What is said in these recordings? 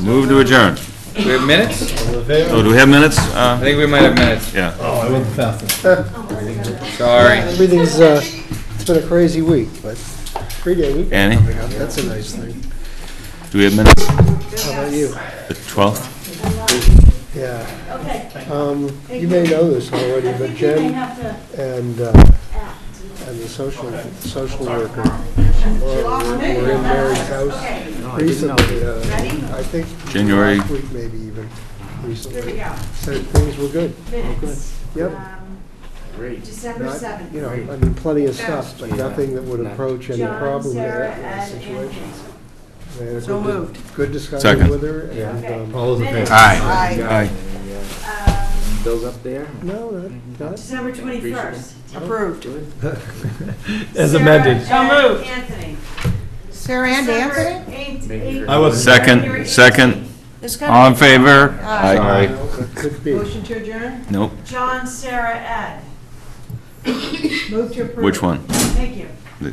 Move to adjourn. Do we have minutes? Oh, do we have minutes? Uh, I think we might have minutes. Yeah. Sorry. Everything's, uh, it's been a crazy week, but three-day week, Annie, that's a nice thing. do we have minutes? How about you? The 12th? Yeah. Okay. Um, You may know this already, I but think you may Jen have to and, uh, and the social, social worker Laura, were were in Mary's house recently. uh, I think. January. Last week, maybe even, recently. Said things were good. minutes. Yep. Um, December Not- You know, seventh. I mean, plenty of stuff, but nothing that would approach any John, problem with Sarah, that kind of and situation. Anthony. They had a good- Good discussion Second. with her, and, Okay. um, Minutes, Aye. Aye. um, Bills up there? no, not, not December twenty-first. Approved. As amended. So moved. Anthony. Sarah and Anthony? Anthony? I was- Second, second. All in favor? Aye. It could be. Motion to adjourn? Nope. John, Sarah, Ed. Move to approve. Which one? Thank you. All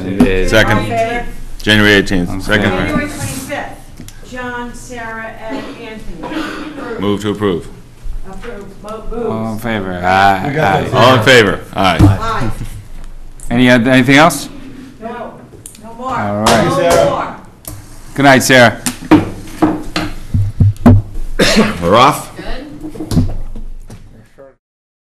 in Second, favor? January 18th, January second. twenty-fifth. John, Sarah, Ed, Anthony. Move to approve. Approved. All in Mo- favor? Aye. Aye. All in favor? Aye. Aye. Any, oth- anything else? Moves. No, no more. All right. No more. Good night, Sarah. We're off.